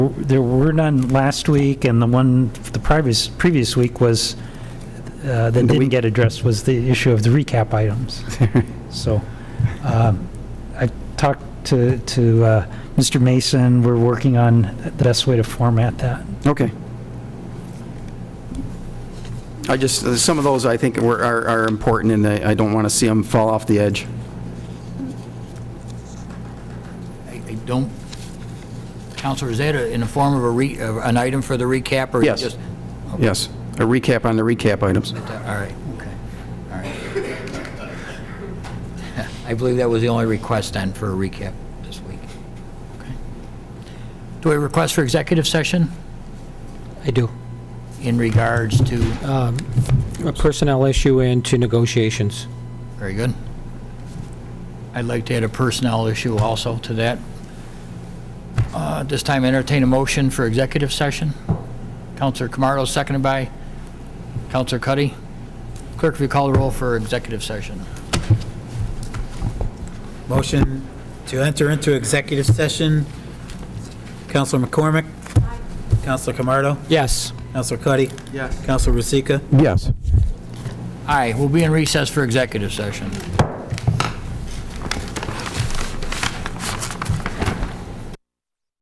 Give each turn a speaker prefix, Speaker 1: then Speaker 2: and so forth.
Speaker 1: There were none last week, and the one, the previous, previous week was, uh, that didn't get addressed was the issue of the recap items. So, um, I talked to, to uh, Mr. Mason, we're working on the best way to format that.
Speaker 2: Okay. I just, uh, some of those I think were, are, are important, and I I don't want to see them fall off the edge.
Speaker 3: I I don't, Counselor, is that a- in the form of a re, of an item for the recap, or?
Speaker 2: Yes.
Speaker 3: just-
Speaker 2: Yes, a recap on the recap items.
Speaker 3: All right, okay, all right. I believe that was the only request then for a recap this week. Okay. Do we request for executive session
Speaker 4: I do.
Speaker 3: in regards to,
Speaker 4: A personnel issue and to negotiations.
Speaker 3: very good. I'd like to add a personnel issue also to that. Uh, at This time entertain a motion for executive session. Counselor Camardo, seconded by Counselor Cuddy. Clerk, if you call the roll for executive session.
Speaker 5: Motion to enter into executive session. Counselor McCormick? Counselor Camardo?
Speaker 4: Yes.
Speaker 5: Counselor Cuddy? Yes. Counselor Rosika?
Speaker 2: Yes.
Speaker 3: Aye, we'll be in recess for executive session.